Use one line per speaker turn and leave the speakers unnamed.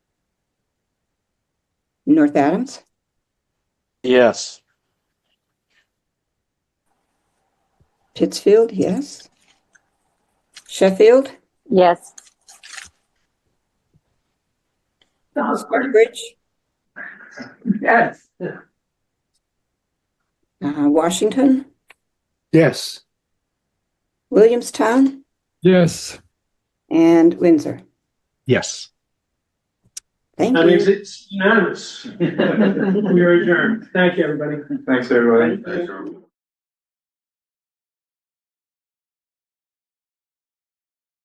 North Adams,
Yes.
Pittsfield, yes. Sheffield,
Yes.
Bridge,
Yes.
uh, Washington,
Yes.
Williamstown,
Yes.
and Windsor.
Yes.
Thank
That means
you.
it's unanimous. We are adjourned. Thank you, everybody.
Thanks, everybody.
Thank you.